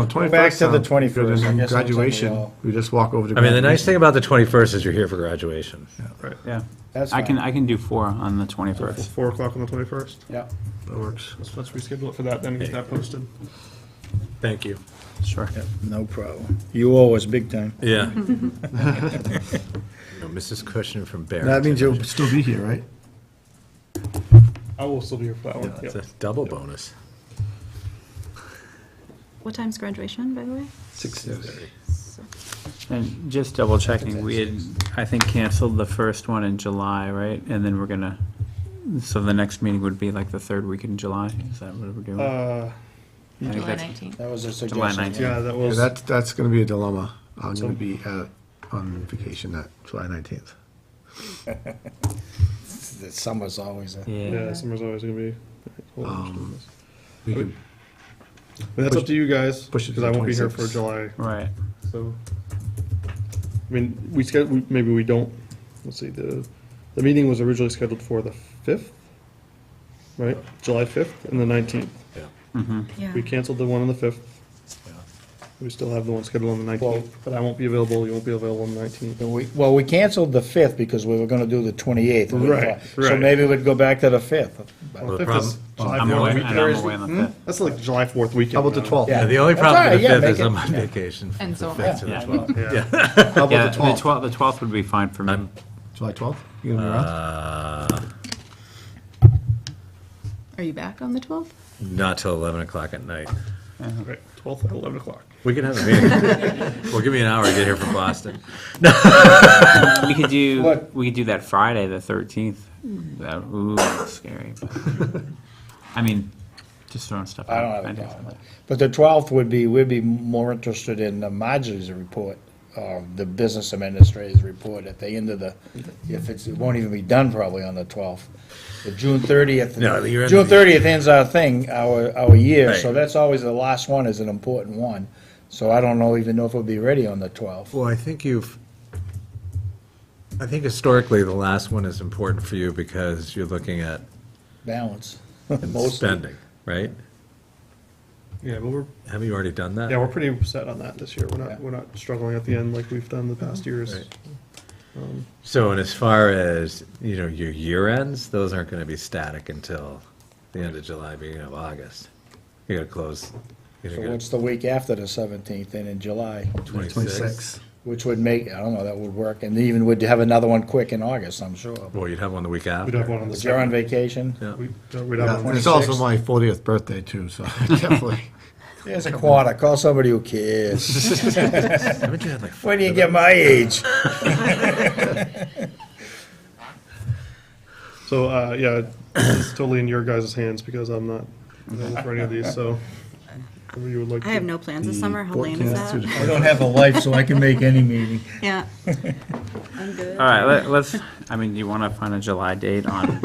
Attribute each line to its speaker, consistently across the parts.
Speaker 1: no, twenty-first.
Speaker 2: Back to the 21st, I guess that's what we
Speaker 1: Graduation,
Speaker 2: all-
Speaker 1: we just walk over to.
Speaker 3: I mean, the nice thing about the 21st is you're here for graduation.
Speaker 4: Yeah,
Speaker 2: That's
Speaker 4: I can,
Speaker 2: fine.
Speaker 4: I can do four on the twenty-first.
Speaker 5: Four o'clock on the twenty-first.
Speaker 2: Yeah.
Speaker 1: That works.
Speaker 5: Let's, let's reschedule it for that then, get that posted.
Speaker 3: Thank you.
Speaker 4: Sure.
Speaker 2: No problem. You owe us big time.
Speaker 3: Yeah. No, Mrs. Cushing from Barrington.
Speaker 1: That means you'll still be here, right?
Speaker 5: I will still be here for that one,
Speaker 3: Yeah, It's
Speaker 5: yep.
Speaker 3: a double bonus.
Speaker 6: What time's graduation, by the way?
Speaker 1: Six
Speaker 4: And just double checking, we had, I think, canceled the first one in July, right? And then we're gonna, so the next meeting would be like the third week in July, is that what we're doing? I
Speaker 5: Uh,
Speaker 4: think
Speaker 6: July
Speaker 4: that's-
Speaker 6: 19th.
Speaker 2: That was a
Speaker 4: July
Speaker 2: suggestion.
Speaker 4: 19th.
Speaker 5: yeah, that
Speaker 1: Yeah,
Speaker 5: was,
Speaker 1: that's, that's gonna be a dilemma. I'm gonna be at, on vacation that July nineteenth.
Speaker 2: The summer's always a.
Speaker 5: yeah,
Speaker 4: Yeah,
Speaker 5: summer's always gonna be.
Speaker 1: Um, We can
Speaker 5: But that's up to you guys,
Speaker 1: push it to
Speaker 5: because I
Speaker 1: the
Speaker 5: won't be here for
Speaker 1: 26th.
Speaker 5: July,
Speaker 4: right.
Speaker 5: so. I mean, we sched, we- maybe we don't, let's see, the, the meeting was originally scheduled for the fifth, right? July fifth and the nineteenth.
Speaker 6: Yeah.
Speaker 5: We canceled the one on the fifth. We still have the one scheduled on the
Speaker 2: Well-
Speaker 5: nineteenth, but I won't be available, you won't be available on the nineteenth.
Speaker 2: We- Well, we canceled the 5th because we were going to do the 28th. and we
Speaker 5: Right,
Speaker 2: thought- So
Speaker 5: right.
Speaker 2: maybe we'd go back to the 5th.
Speaker 3: Well, the
Speaker 5: Fifth
Speaker 3: problem-
Speaker 5: is July
Speaker 4: I'm
Speaker 5: fourth
Speaker 4: away, and
Speaker 5: weekend.
Speaker 4: I'm away
Speaker 2: Hmm?
Speaker 4: on the fifth.
Speaker 5: That's like July fourth weekend.
Speaker 1: How about the
Speaker 5: now.
Speaker 1: twelfth?
Speaker 3: Yeah, the only
Speaker 2: That's
Speaker 3: problem
Speaker 2: all right,
Speaker 3: with the
Speaker 2: yeah,
Speaker 3: 5th is
Speaker 2: make
Speaker 3: I'm
Speaker 2: it-
Speaker 3: on vacation from
Speaker 6: And
Speaker 3: the
Speaker 6: so-
Speaker 3: 5th to the
Speaker 4: Yeah.
Speaker 3: 12th.
Speaker 5: Yeah.
Speaker 1: How
Speaker 4: Yeah,
Speaker 1: about the
Speaker 4: the
Speaker 1: twelfth?
Speaker 4: twelfth, the twelfth would be fine for me.
Speaker 1: July twelfth? You gonna be around?
Speaker 3: Uh,
Speaker 6: Are you back on the 12th?
Speaker 3: Not till 11 o'clock at night.
Speaker 5: Right, twelfth at eleven o'clock.
Speaker 3: We can have a meeting. Well, give me an hour to get here from Boston.
Speaker 4: We could do,
Speaker 2: What?
Speaker 4: we could do that Friday, the thirteenth. That, ooh, that's scary. but- I mean, just throwing stuff out.
Speaker 2: I don't have a
Speaker 4: do
Speaker 2: problem with it. But the 12th would be, we'd be more interested in uh, Marjorie's report, or the business administrator's report at the end of the, if it's, it won't even be done probably on the 12th. The June 30th.
Speaker 3: No, the year end
Speaker 2: June
Speaker 3: of the-
Speaker 2: 30th ends our thing, our, our year, so
Speaker 3: Right.
Speaker 2: that's always the last one is an important one. So I don't know, even know if it'll be ready on the 12th.
Speaker 3: Well, I think you've, I think historically, the last one is important for you because you're looking at
Speaker 2: Balance. Mostly.
Speaker 3: spending, right?
Speaker 5: Yeah, but we're,
Speaker 3: Haven't you already done
Speaker 5: yeah,
Speaker 3: that?
Speaker 5: we're pretty set on that this year. We're
Speaker 2: Yeah.
Speaker 5: not, we're not struggling at the end like we've done the past years.
Speaker 3: Right. So, and as far as, you know, your year ends, those aren't gonna be static until the end of July, beginning of August. You gotta close, you
Speaker 2: So
Speaker 3: know,
Speaker 2: what's the week after the 17th then in July?
Speaker 3: twenty-six.
Speaker 1: Twenty-sixth.
Speaker 2: Which would make, I don't know, that would work, and even would have another one quick in August, I'm sure.
Speaker 3: Well, you'd have one the week after.
Speaker 5: We'd have one on the
Speaker 2: But you're on
Speaker 5: second.
Speaker 2: vacation?
Speaker 3: Yeah.
Speaker 5: We- no, We'd have
Speaker 1: Yeah,
Speaker 5: one.
Speaker 1: It's also my fortieth birthday too, so definitely.
Speaker 2: There's a quarter, call somebody who cares.
Speaker 3: Haven't you had like?
Speaker 2: When do you get my age?
Speaker 5: So, uh, yeah, it's totally in your guys' hands because I'm not available for any of these, so. whatever you would like
Speaker 6: I have
Speaker 5: to-
Speaker 6: no plans this summer. How lame is
Speaker 1: 14th through the
Speaker 6: that?
Speaker 1: 20th.
Speaker 2: I don't have a life, so I can make any meeting.
Speaker 6: Yeah. I'm good.
Speaker 4: All right, let, let's, I mean, you wanna find a July date on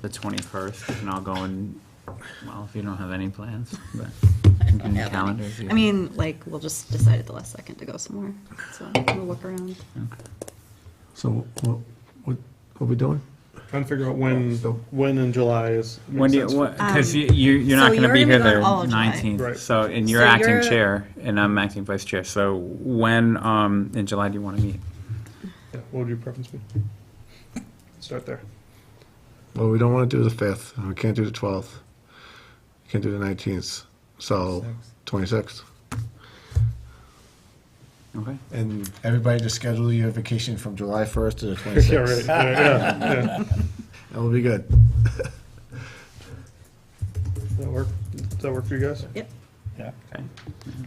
Speaker 4: the twenty-first, and I'll go and, well, if you don't have any plans, but. you can
Speaker 6: have any.
Speaker 4: calendar if you-
Speaker 6: I mean, like, we'll just decide at the last second to go somewhere. So we'll look around.
Speaker 1: So what, what, what are we doing?
Speaker 5: Trying to figure out when,
Speaker 1: So-
Speaker 5: when in July is. makes
Speaker 4: When do you,
Speaker 5: sense.
Speaker 4: what, cause you, you- you're not
Speaker 6: Um, so
Speaker 4: gonna
Speaker 6: you're
Speaker 4: be
Speaker 6: gonna
Speaker 4: here
Speaker 6: be gone
Speaker 4: the
Speaker 6: all of July.
Speaker 4: nineteenth,
Speaker 5: Right.
Speaker 4: so, and you're
Speaker 6: So
Speaker 4: acting
Speaker 6: you're-
Speaker 4: chair, and I'm acting vice chair, so when, um, in July do you wanna meet?
Speaker 5: Yeah, What would your preference be? Start there.
Speaker 1: Well, we don't want to do the fifth, and we can't do the twelfth, can't do the nineteenth, so twenty-sixth.
Speaker 4: Okay,
Speaker 7: And everybody just schedule your vacation from July 1st to the
Speaker 5: Yeah,
Speaker 7: 26th.
Speaker 5: right, yeah, yeah, yeah.
Speaker 1: That will be good.
Speaker 5: Does that work, does that work for you guys?
Speaker 6: Yep.
Speaker 4: okay.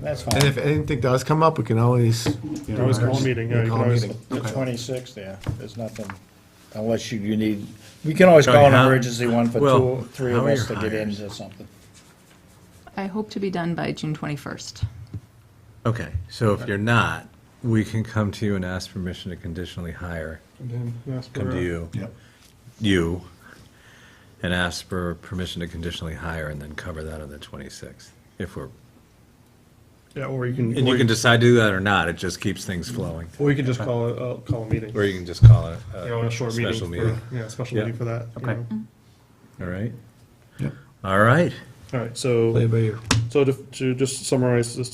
Speaker 2: That's
Speaker 1: And
Speaker 2: fine.
Speaker 1: if anything does come up, we can always. you know,
Speaker 5: Always call a meeting, yeah, you
Speaker 1: call
Speaker 5: can
Speaker 1: a
Speaker 5: always-
Speaker 1: meeting.
Speaker 2: The 26th, yeah, there's nothing, unless you, you need, we can always call
Speaker 3: Tony,
Speaker 2: an
Speaker 3: how-
Speaker 2: emergency one for
Speaker 3: well,
Speaker 2: two, three
Speaker 3: how
Speaker 2: of
Speaker 3: are
Speaker 2: us to
Speaker 3: your
Speaker 2: get
Speaker 3: hires?
Speaker 2: into something.
Speaker 8: I hope to be done by June 21st.
Speaker 3: Okay, so if you're not, we can come to you and ask permission to conditionally hire,
Speaker 5: And then ask
Speaker 3: come
Speaker 5: for,
Speaker 3: to
Speaker 5: uh,
Speaker 3: you,
Speaker 1: Yep.
Speaker 3: you, and ask for permission to conditionally hire and then cover that on the 26th, if we're,
Speaker 5: Yeah, or you can.
Speaker 3: and
Speaker 5: or
Speaker 3: you can decide to do that or not, it just keeps things flowing.
Speaker 5: Or you can just call a, uh, call a meeting.
Speaker 3: Or you can just call it
Speaker 5: You know,
Speaker 3: a
Speaker 5: a short meeting.
Speaker 3: special
Speaker 5: for-
Speaker 3: meeting,
Speaker 5: Yeah, a special
Speaker 3: Yeah.
Speaker 5: meeting for that. you
Speaker 4: Okay.
Speaker 5: know.
Speaker 3: all right?
Speaker 1: Yep.
Speaker 3: All right.
Speaker 5: All right, so,
Speaker 1: Play it by ear.
Speaker 5: so to, to just summarize this